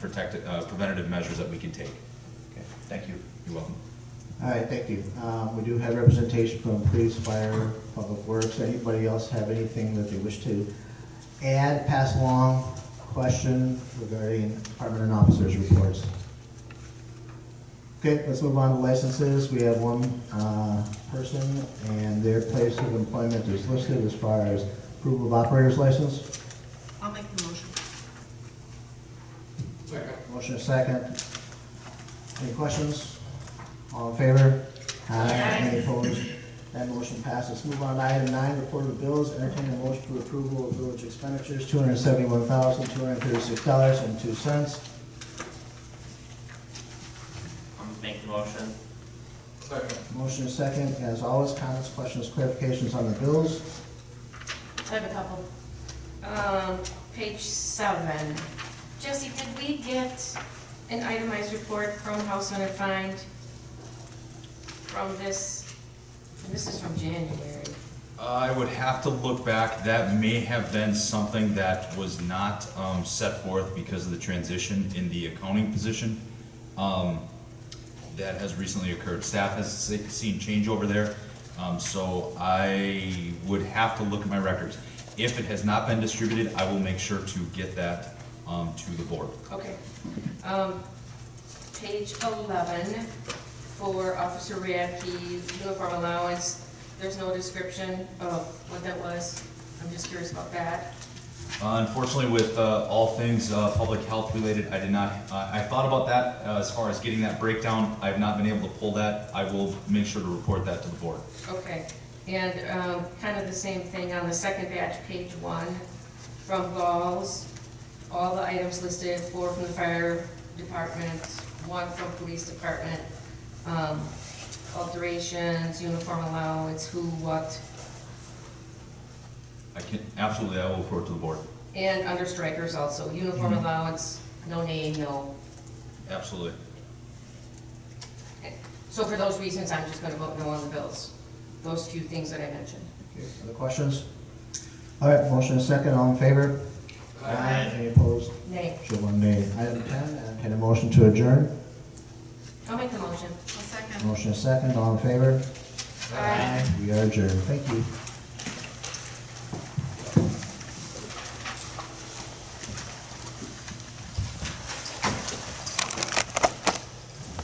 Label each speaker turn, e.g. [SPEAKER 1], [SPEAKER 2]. [SPEAKER 1] protective, uh, preventative measures that we can take.
[SPEAKER 2] Okay, thank you.
[SPEAKER 1] You're welcome.
[SPEAKER 3] All right, thank you. Um, We do have representation from police, fire, public works. Anybody else have anything that they wish to add, pass along, question regarding department and officers' reports? Okay, let's move on to licenses. We have one uh, person, and their place of employment is listed as far as approval of operator's license.
[SPEAKER 4] I'll make the motion.
[SPEAKER 3] Motion is second. Any questions? All in favor?
[SPEAKER 4] Aye.
[SPEAKER 3] Any opposed? That motion passes. Move on to item nine, report of bills. Entertain a motion for approval of village expenditures, two hundred seventy-one thousand, two hundred thirty-six dollars and two cents.
[SPEAKER 5] I'll make the motion.
[SPEAKER 3] Motion is second. As always, comments, questions, clarifications on the bills?
[SPEAKER 6] I have a couple. Um, page seven. Jesse, did we get an itemized report from House Hunter Find from this, and this is from January?
[SPEAKER 1] I would have to look back, that may have been something that was not, um, set forth because of the transition in the accounting position. Um, that has recently occurred, staff has se- seen change over there, um, so I would have to look at my records. If it has not been distributed, I will make sure to get that, um, to the board.
[SPEAKER 6] Okay. Um, page eleven, for Officer Radke, uniform allowance, there's no description of what that was. I'm just curious about that.
[SPEAKER 1] Unfortunately, with uh, all things uh, public health related, I did not, uh, I thought about that uh, as far as getting that breakdown. I have not been able to pull that. I will make sure to report that to the board.
[SPEAKER 6] Okay, and um, kind of the same thing on the second batch, page one, from Gauls, all the items listed, four from the fire department, one from police department, um, alterations, uniform allowance, who, what,
[SPEAKER 1] I can, absolutely, I will report to the board.
[SPEAKER 6] and under strikers also, uniform allowance, no name, no.
[SPEAKER 1] Absolutely.
[SPEAKER 6] So for those reasons, I'm just gonna vote no on the bills, those few things that I mentioned.
[SPEAKER 3] Okay, Other questions? All right, motion is second. All in favor? Aye. Any opposed?
[SPEAKER 6] Nay,
[SPEAKER 3] Show one nay. Item ten, entertain a motion to adjourn.
[SPEAKER 6] I'll make the motion.
[SPEAKER 4] I'll second.
[SPEAKER 3] Motion is second. All in favor?
[SPEAKER 6] Aye.
[SPEAKER 3] We are adjourned. Thank you.